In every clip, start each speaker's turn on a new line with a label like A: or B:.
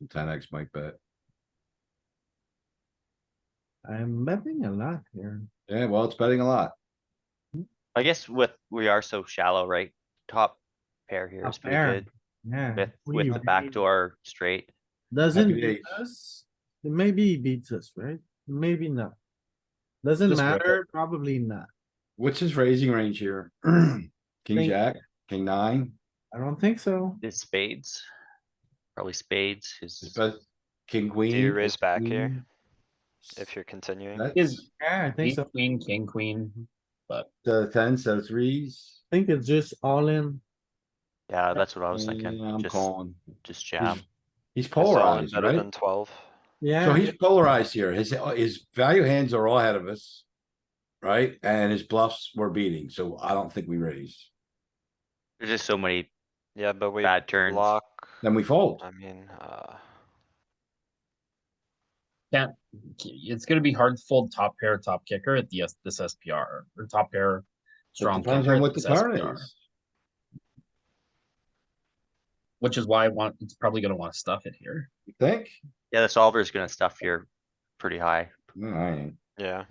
A: and ten X might bet.
B: I'm betting a lot here.
A: Yeah, well, it's betting a lot.
C: I guess with, we are so shallow, right? Top pair here is
B: Top
C: pretty
B: pair,
C: good
B: Yeah.
C: with,
B: we
C: with the
B: already-
C: backdoor straight.
B: Doesn't
A: Happy
B: beat
A: days.
B: us. Maybe he beats us, right? Maybe not. Doesn't
A: Just rip
B: matter, probably not.
A: What's his raising range here? King
B: Think-
A: jack, king nine,
B: I don't think so.
C: It's spades. Probably spades
A: his
C: is,
A: best, king
D: Do
A: queen.
D: you raise back here
A: queen.
C: Mm.
D: if you're continuing?
A: That's
B: Yeah, I think
E: King,
B: so. I
E: queen, king, queen.
A: the ten, so threes.
B: think it's just all in.
C: yeah, that's what I was
A: Yeah,
C: thinking.
A: I'm
C: Just,
A: calling.
C: just jam.
A: He's
D: Is all in
A: polarized,
D: Better
A: right?
D: than twelve.
A: So
B: Yeah,
A: he's polarized here. His, his value hands are all ahead of us. Right? And his bluffs were beating, so I don't think we raise.
C: There's just so many
D: Yeah, but we
C: bad turns.
D: block.
A: Then we fold.
D: I mean, uh,
E: It's gonna be hard to fold top pair, top kicker at the, S- this SPR, or top pair.
A: It
E: Strong
A: Depends
E: kicker
A: on
E: at
A: what the
E: this
A: turn
E: SPR,
A: is.
E: Which is why I want, it's probably gonna wanna stuff it here.
A: You think?
C: Yeah, the solver's gonna stuff here pretty high,
A: Alright,
D: yeah,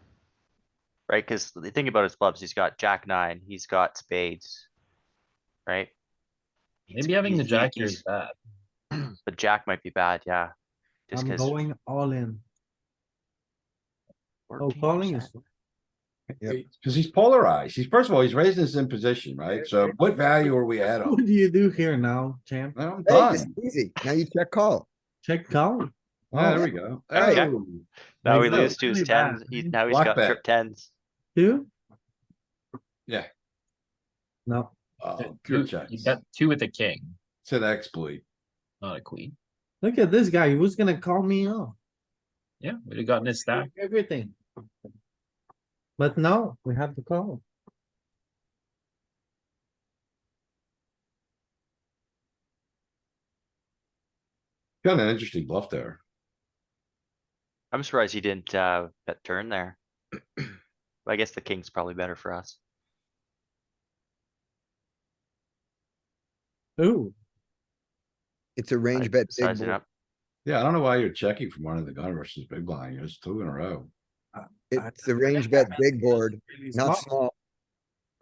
C: right? Cuz the thing about his clubs, he's got jack nine, he's got spades. Right?
E: Maybe having the
C: He's-
E: jack here
C: he's-
E: is bad.
C: But jack might be bad, yeah. Just
B: I'm
C: 'cause
B: going all in. Oh, calling is,
C: 14%.
A: cuz he's polarized. He's, first of all, he's raising us in position, right? So what value are we at
B: what
A: on?
B: do you do here now, champ?
A: I'm
F: Hey, this
A: done.
F: is easy. Now you check call.
B: Check call?
A: Ah, there we go.
F: Hey.
A: Hey.
C: Now
B: Like,
C: we
B: no,
C: lose to his
B: really bad,
C: tens, he,
B: right?
C: now he's
A: Block
C: got
A: bet.
C: trip tens.
B: Two?
A: Yeah.
B: No,
A: Oh,
E: You
A: good check.
E: you got two with a king,
A: It's an exploit.
E: not a queen.
B: look at this guy. He was gonna call me off.
E: Yeah, we'd have gotten his stack.
B: Everything. But now we have to call.
A: Got an interesting bluff there.
C: I'm surprised he didn't, uh, bet turn there. I guess the king's probably better for us.
B: Ooh,
F: It's a
C: I
F: range bet. big
C: Size it
F: board.
C: up.
A: Yeah, I don't know why you're checking from under the gun versus big blind. It's two in a row.
B: I-
F: It's a range bet big board,
B: really
F: not
B: small.
F: small.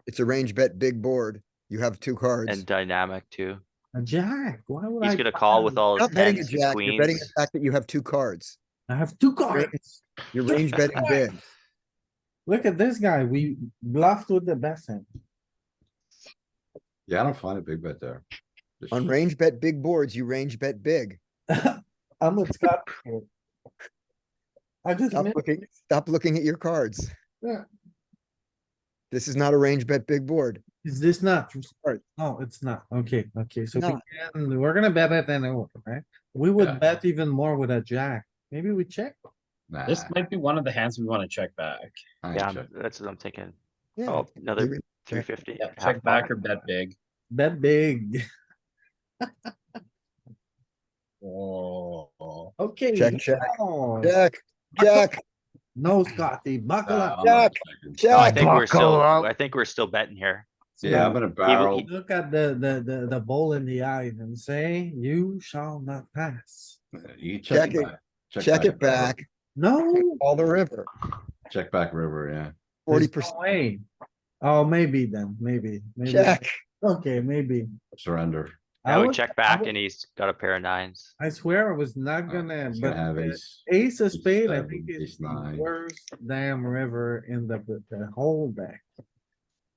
F: It's a range bet big board. You have two cards.
C: And dynamic too.
B: a jack. Why would I?
C: He's gonna call with all
F: You're
C: his
F: Not betting a
C: tens,
F: jack, you're betting
C: queens.
F: the fact that you have two cards.
B: I have two
F: Range-
B: cards.
F: You're range betting big.
B: Look at this guy. We bluffed with the best hand.
A: Yeah, I don't find a big bet there. Just-
F: On range bet big boards, you range bet big.
B: I'm with Scott. here. I just,
F: Stop
B: missed-
F: looking, stop looking at your cards.
B: Yeah.
F: This is not a range bet big board.
B: is this not?
F: Sorry.
B: No, it's not. Okay, okay, so we
F: Not.
B: can, we're gonna bet it anyway, right? We
A: Yeah.
B: would bet even more with a jack. Maybe we check.
A: Nah,
E: This might be one of the hands we wanna check back.
A: I ain't
C: Yeah,
A: check.
C: I'm- that's what I'm thinking.
F: Yeah.
C: Oh, another
F: Maybe-
C: three fifty.
E: Yeah, check back or bet big.
B: Bet big.
E: Oh.
B: Okay.
F: Check, check,
B: oh,
F: Jack, Jack,
B: No, Scotty, buckle
A: Nah,
B: up.
A: Uh, I'm not checking.
C: I
F: Jack.
C: think we're still,
F: Buckle up.
C: I think we're still betting here.
A: Yeah, I'm gonna barrel.
B: Look at the, the, the, the bowl in the eye and say, you shall not pass.
A: You check
F: Check it.
A: it back.
F: Check it back,
B: No.
F: all the river,
A: Check back river, yeah.
F: forty
B: There's
F: percent.
B: no way. Oh, maybe then, maybe, maybe.
F: Jack,
B: Okay, maybe.
A: Surrender.
B: I
C: Now we
B: was-
C: check
B: I
C: back
B: would-
C: and he's got a pair of nines.
B: I swear I was not
A: Uh,
B: gonna,
A: He's
B: but
A: gonna have
B: the
A: ace.
B: ace of spade, I
A: seven,
B: think
A: ace
B: is the
A: nine.
B: worst damn river in the, the whole deck.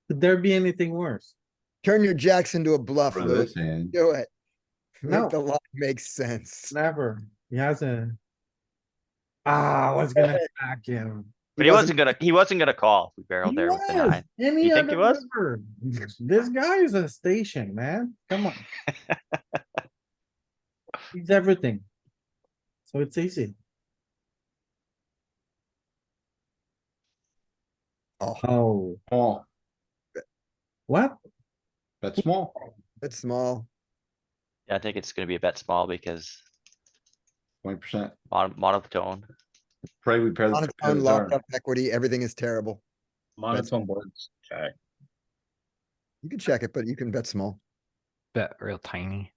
B: Could there be anything worse?
F: turn your jacks into a bluff,
A: For
F: Lou.
A: this hand,
F: Do it.
B: No.
F: Make the line make sense.
B: Never. He has a. Ah, I was gonna attack him.
C: But he wasn't gonna, he wasn't gonna call if we barreled
B: He
C: there with the
B: was.
C: nine.
B: Any
C: You think he
B: other
C: was?
B: river. This guy is a station, man. Come on. He's everything. So it's easy.
F: Oh,
B: Oh,
A: small,
B: what?
A: bet small.
F: that's small.
C: Yeah, I think it's gonna be a bet small because
A: Twenty percent.
C: mon- monotone.
A: Pray we pair. the
F: On its
A: pair
F: own
A: the
F: locked
A: turn.
F: up equity, everything is terrible.
E: Monotone boards, check.
F: You can check it, but you can bet small.
G: bet real tiny.